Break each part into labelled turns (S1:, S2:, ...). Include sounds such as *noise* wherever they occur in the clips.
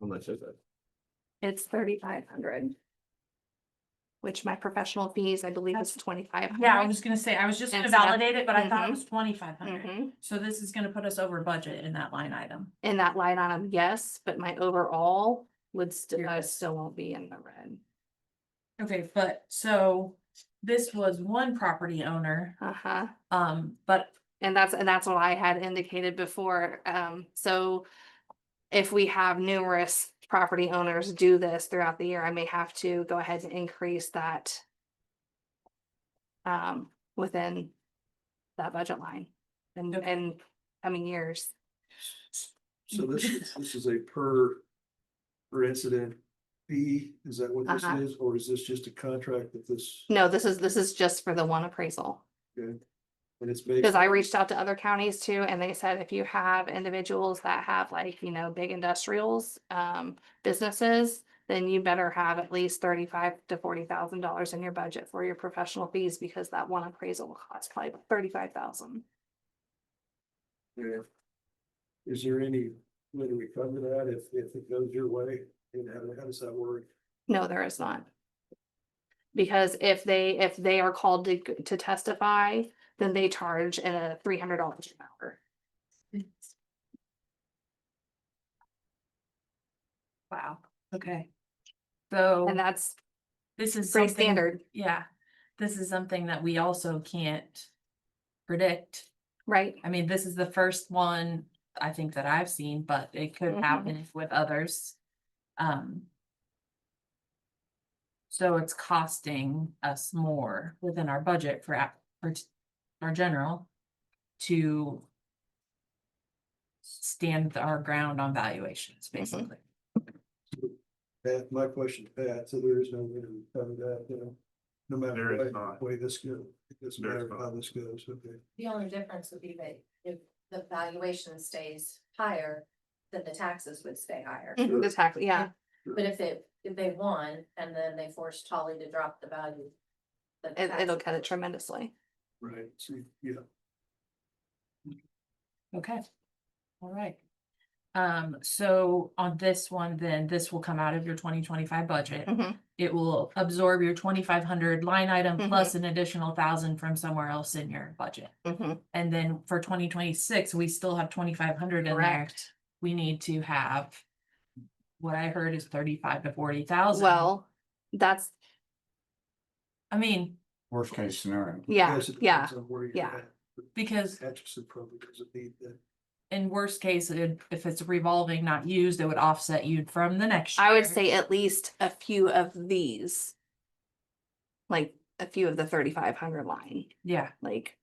S1: How much is it?
S2: It's thirty-five hundred. Which my professional fees, I believe, is twenty-five hundred.
S3: Yeah, I was gonna say, I was just gonna
S2: It's not-
S3: validate it, but I thought
S2: Mhm.
S3: it was twenty-five hundred.
S2: Mhm.
S3: So this is gonna put us over budget in that line item.
S2: In that line item, yes, but my overall would still, I
S3: Yours.
S2: still won't be in the red.
S3: Okay, but so this was one property owner,
S2: Uh-huh.
S3: um, but
S2: And that's, and that's what I had indicated before, um, so. If we have numerous property owners do this throughout the year, I may have to go ahead and increase that. Um, within that budget line and,
S3: Okay.
S2: and coming years. *laughs*
S4: So this, is- this is a per, per incident fee, is that what this
S2: Uh-huh.
S4: is, or is this just a contract that this,
S2: No, this is, this is just for the one appraisal.
S4: and it's based?
S2: Cause I reached out to other counties too, and they said if you have individuals that have like, you know, big industrials, um, businesses. Then you better have at least thirty-five to forty thousand dollars in your budget for your professional fees, because that one appraisal will cost probably thirty-five thousand.
S4: Yeah. Is there any, way to recover that if, if it goes your way, and how, how does that work?
S2: No, there is not. Because if they, if they are called to, g- to testify, then they charge a three hundred dollars an hour.
S3: wow, okay. So
S2: And that's
S3: this is
S2: pretty
S3: something-
S2: standard,
S3: Yeah, this is something that we also can't predict.
S2: right?
S3: I mean, this is the first one I think that I've seen, but it could
S2: Mhm.
S3: happen with others. Um. So it's costing us more within our budget for app, for t- our general to stand our ground on valuations, basically.
S4: Pat, my question to Pat, so there is no way to recover that, you know? No
S1: There
S4: matter
S1: is
S4: what
S1: not.
S4: way this goes, it doesn't
S1: There is
S4: matter how
S1: not.
S4: this goes, okay?
S5: The only difference would be that if the valuation stays higher, then the taxes would stay higher.
S2: Mhm, The tax, yeah,
S5: But if it, if they won and then they forced Holly to drop the value. then the
S2: it, it'll
S5: taxes
S2: cut
S5: would-
S2: it tremendously.
S4: Right, so, yeah.
S3: Okay. All right. Um, so on this one, then this will come out of your twenty twenty-five budget.
S2: Mhm.
S3: it will absorb your twenty-five hundred line item
S2: Mhm.
S3: plus an additional thousand from somewhere else in your budget.
S2: Mhm,
S3: And then for twenty twenty-six, we still have twenty-five hundred in there.
S2: Correct.
S3: We need to have what I heard is thirty-five to forty thousand.
S2: Well, that's,
S3: I mean,
S6: Worst case scenario.
S2: yeah,
S4: Yes, it
S2: yeah,
S4: depends on where you're
S2: yeah.
S4: at.
S3: because
S4: Atchison probably doesn't need that.
S3: in worst case, it- if it's revolving, not used, it would offset you from the next.
S2: I would
S3: year.
S2: say at least a few of these. Like a few of the thirty-five hundred line,
S3: Yeah,
S2: like.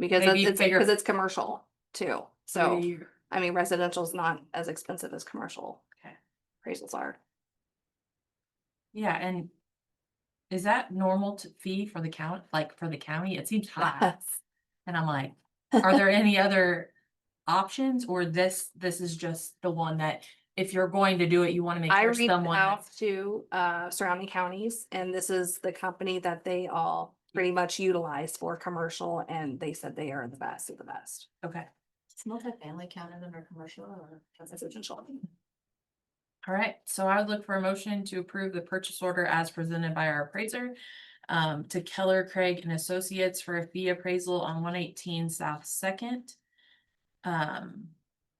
S2: Because it's,
S3: Maybe
S2: it's-
S3: bigger-
S2: cause it's commercial too, so,
S3: three-
S2: I mean, residential's not as expensive as commercial.
S3: Okay.
S2: Appraisals are,
S3: yeah, and is that normal to fee for the count, like for the county? It seems high.
S2: *laughs*
S3: And I'm like, are there any other options or this, this is just the one that if you're going to do it, you want to make
S2: I
S3: sure
S2: reached
S3: someone.
S2: out
S3: that's-
S2: to, uh, surrounding counties and this is the company that they all pretty much utilize for commercial and they said they are the best of the best.
S3: Okay,
S5: Is multifamily counted under commercial or?
S2: Residential.
S3: all right. So I would look for a motion to approve the purchase order as presented by our appraiser um, to Keller Craig and Associates for a fee appraisal on one eighteen South Second um,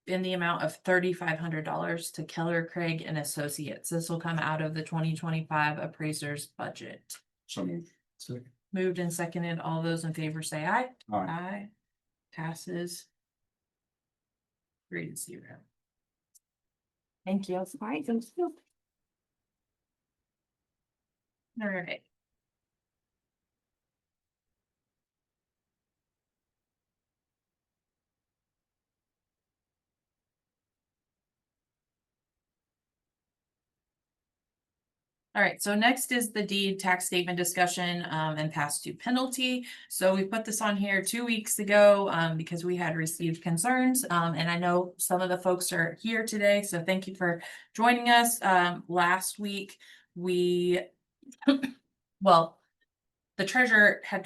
S3: in the amount of thirty-five hundred dollars to Keller Craig and Associates. This will come out of the twenty twenty-five appraiser's budget.
S6: So moved.
S4: Second.
S3: Moved and seconded. All those in favor say aye.
S6: All right.
S3: Aye. Passes. Three to zero. Thank you.
S2: All right, then, nope.
S3: All right. All right, so next is the deed tax statement discussion um, and past due penalty. So we put this on here two weeks ago um, because we had received concerns. um, And I know some of the folks are here today, so thank you for joining us. Um, Last week, we, well, the treasurer had